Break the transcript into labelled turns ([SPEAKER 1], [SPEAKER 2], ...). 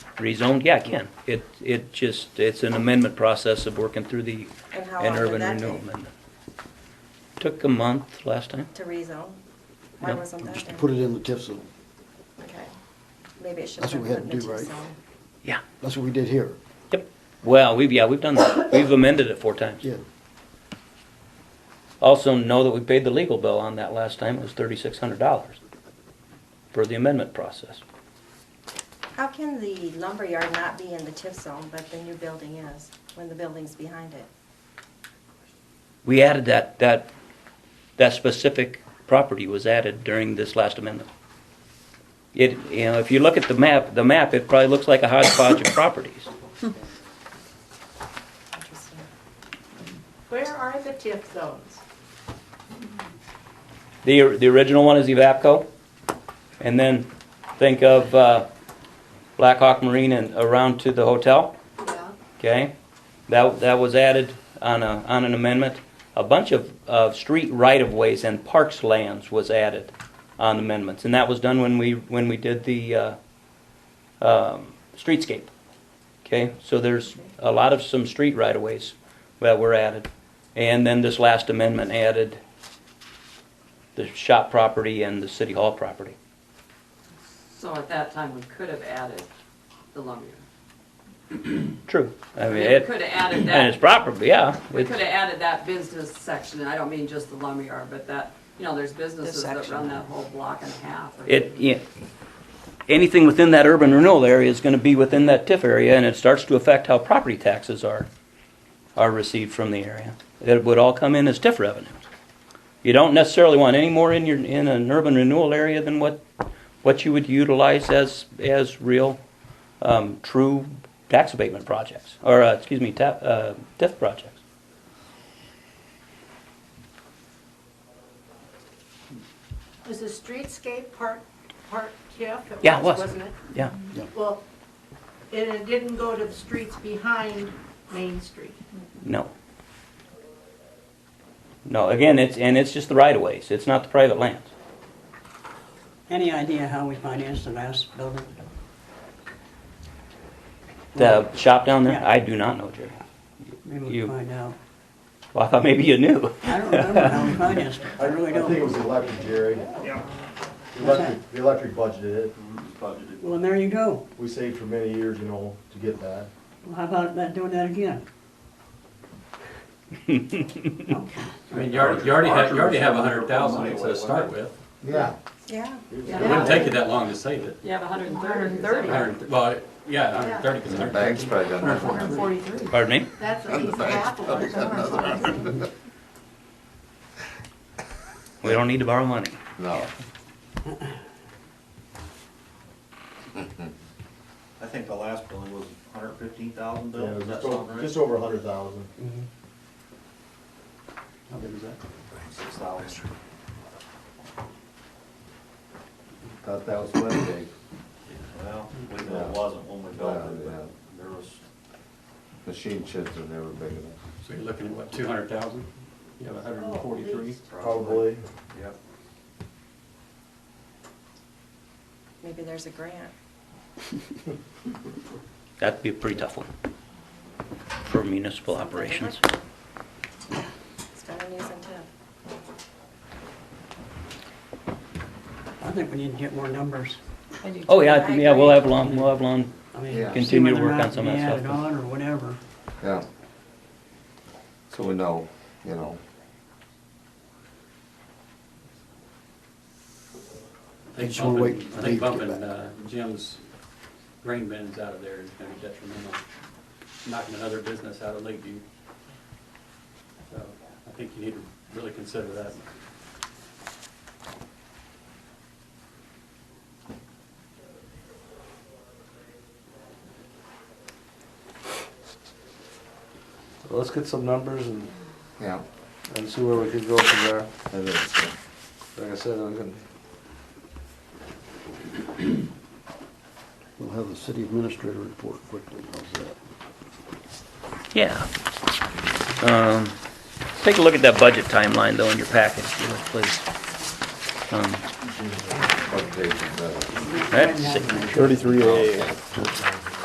[SPEAKER 1] rezoned? Yeah, I can. It, it just, it's an amendment process of working through the,
[SPEAKER 2] And how
[SPEAKER 1] an
[SPEAKER 2] long did
[SPEAKER 1] urban
[SPEAKER 2] that
[SPEAKER 1] renewal
[SPEAKER 2] take
[SPEAKER 1] amendment. Took a month last time.
[SPEAKER 2] to rezone? Why
[SPEAKER 1] Yeah,
[SPEAKER 2] wasn't that
[SPEAKER 3] Just to
[SPEAKER 2] done?
[SPEAKER 3] put it in the TIF zone.
[SPEAKER 2] Okay. Maybe it should have
[SPEAKER 3] That's
[SPEAKER 2] been put
[SPEAKER 3] what we
[SPEAKER 2] in
[SPEAKER 3] had
[SPEAKER 2] the
[SPEAKER 3] to do,
[SPEAKER 2] TIF
[SPEAKER 3] right?
[SPEAKER 2] zone.
[SPEAKER 1] Yeah.
[SPEAKER 3] That's what we did here.
[SPEAKER 1] Yep. Well, we've, yeah, we've done that. We've amended it four times.
[SPEAKER 3] Yeah,
[SPEAKER 1] Also know that we paid the legal bill on that last time. It was thirty-six hundred dollars for the amendment process.
[SPEAKER 2] How can the lumberyard not be in the TIF zone, but the new building is, when the building's behind it?
[SPEAKER 1] We added that, that, that specific property was added during this last amendment. It, you know, if you look at the map, the map, it probably looks like a hodgepodge of properties.
[SPEAKER 2] Interesting.
[SPEAKER 4] Where are the TIF zones?
[SPEAKER 1] The, the original one is Evapco, and then think of uh, Black Hawk Marine and around to the hotel,
[SPEAKER 4] Yeah.
[SPEAKER 1] okay? That, that was added on a, on an amendment. A bunch of, of street right-of-ways and parks lands was added on amendments, and that was done when we, when we did the uh, um, streetscape, okay? So there's a lot of some street right-of-ways that were added. And then this last amendment added the shop property and the city hall property.
[SPEAKER 5] So at that time, we could have added the lumberyard.
[SPEAKER 1] True. I mean,
[SPEAKER 5] We
[SPEAKER 1] it,
[SPEAKER 5] could have added
[SPEAKER 1] and it's
[SPEAKER 5] that,
[SPEAKER 1] proper, but yeah.
[SPEAKER 5] we
[SPEAKER 1] it's-
[SPEAKER 5] could have added that business section, and I don't mean just the lumberyard, but that, you know, there's businesses that
[SPEAKER 2] section.
[SPEAKER 5] run that whole block and a half. or-
[SPEAKER 1] It, yeah, anything within that urban renewal area is gonna be within that TIF area, and it starts to affect how property taxes are, are received from the area. It would all come in as TIF revenue. You don't necessarily want any more in your, in an urban renewal area than what, what you would utilize as, as real, um, true tax abatement projects, or, uh, excuse me, ta, uh, TIF projects.
[SPEAKER 4] Was the streetscape part, part TIF?
[SPEAKER 1] Yeah, it was.
[SPEAKER 4] Wasn't it?
[SPEAKER 1] Yeah,
[SPEAKER 4] Well, it it didn't go to the streets behind Main Street.
[SPEAKER 1] no. No, again, it's, and it's just the right of ways, it's not the private lands.
[SPEAKER 6] Any idea how we financed the last building?
[SPEAKER 1] The shop down there?
[SPEAKER 6] Yeah.
[SPEAKER 1] I do not know, Jerry.
[SPEAKER 6] Maybe
[SPEAKER 1] You-
[SPEAKER 6] we'll find out.
[SPEAKER 1] Well, I thought maybe you knew.
[SPEAKER 6] I don't remember how we financed it, I really
[SPEAKER 7] I think it
[SPEAKER 6] don't.
[SPEAKER 7] was the electric, Jerry.
[SPEAKER 8] Yeah.
[SPEAKER 7] The electric, the electric budgeted it.
[SPEAKER 6] Well, and there you go.
[SPEAKER 7] We saved for many years, you know, to get that.
[SPEAKER 6] Well, How about not doing that again?
[SPEAKER 9] I mean, you already, you already have, you already have a hundred thousand to start with.
[SPEAKER 3] yeah.
[SPEAKER 2] Yeah,
[SPEAKER 9] It wouldn't take you that long to save it.
[SPEAKER 5] You have hundred and thirty.
[SPEAKER 9] A hundred- well, yeah, a hundred thirty, because a hundred
[SPEAKER 10] Bank's
[SPEAKER 9] thirty.
[SPEAKER 10] probably done that.
[SPEAKER 4] Forty-three.
[SPEAKER 1] Pardon me?
[SPEAKER 4] That's at least half of what it's on.
[SPEAKER 1] We don't need to borrow money.
[SPEAKER 10] No.
[SPEAKER 8] I think the last building was hundred fifteen thousand
[SPEAKER 7] Yeah, it
[SPEAKER 8] built, is
[SPEAKER 7] was
[SPEAKER 8] that
[SPEAKER 7] just
[SPEAKER 8] sound
[SPEAKER 7] over,
[SPEAKER 8] right?
[SPEAKER 7] just over a hundred thousand.
[SPEAKER 3] How big is that?
[SPEAKER 8] Six thousand.
[SPEAKER 10] Thought that was Wednesday.
[SPEAKER 8] Well, we know it wasn't when we built it, but there was,
[SPEAKER 10] Machine chips are never big enough.
[SPEAKER 9] So you're looking at what, two hundred thousand? You have a hundred and forty-three.
[SPEAKER 7] Probably.
[SPEAKER 8] yep.
[SPEAKER 2] maybe there's a grant.
[SPEAKER 1] That'd be a pretty tough one for municipal operations.
[SPEAKER 2] It's got an use and tip.
[SPEAKER 6] I think we need to get more numbers.
[SPEAKER 1] Oh, yeah, I- yeah, we'll have long, we'll have long,
[SPEAKER 6] I mean,
[SPEAKER 10] Yeah.
[SPEAKER 6] see
[SPEAKER 1] Continue to
[SPEAKER 6] whether or
[SPEAKER 1] work
[SPEAKER 6] not
[SPEAKER 1] on some
[SPEAKER 6] they
[SPEAKER 1] of that
[SPEAKER 6] added
[SPEAKER 1] stuff.
[SPEAKER 6] on or whatever.
[SPEAKER 10] Yeah. So we know, you know.
[SPEAKER 9] I think
[SPEAKER 3] Just wanna
[SPEAKER 9] bumping,
[SPEAKER 3] wait for
[SPEAKER 9] I
[SPEAKER 3] Dave
[SPEAKER 9] think
[SPEAKER 3] to get
[SPEAKER 9] bumping
[SPEAKER 3] back.
[SPEAKER 9] uh, Jim's grain bins out of there is gonna be detrimental, knocking another business out of Lakeview. So I think you need to really consider that.
[SPEAKER 3] Let's get some numbers and,
[SPEAKER 10] Yeah.
[SPEAKER 3] and see where we can go from there.
[SPEAKER 10] It is. yeah.
[SPEAKER 3] Like I said, I can. We'll have the city administrator report quickly, how's that?
[SPEAKER 1] yeah. Um, Take a look at that budget timeline though in your package, if you would, please. Um,
[SPEAKER 10] What page is that?
[SPEAKER 1] That's,
[SPEAKER 3] Thirty-three A.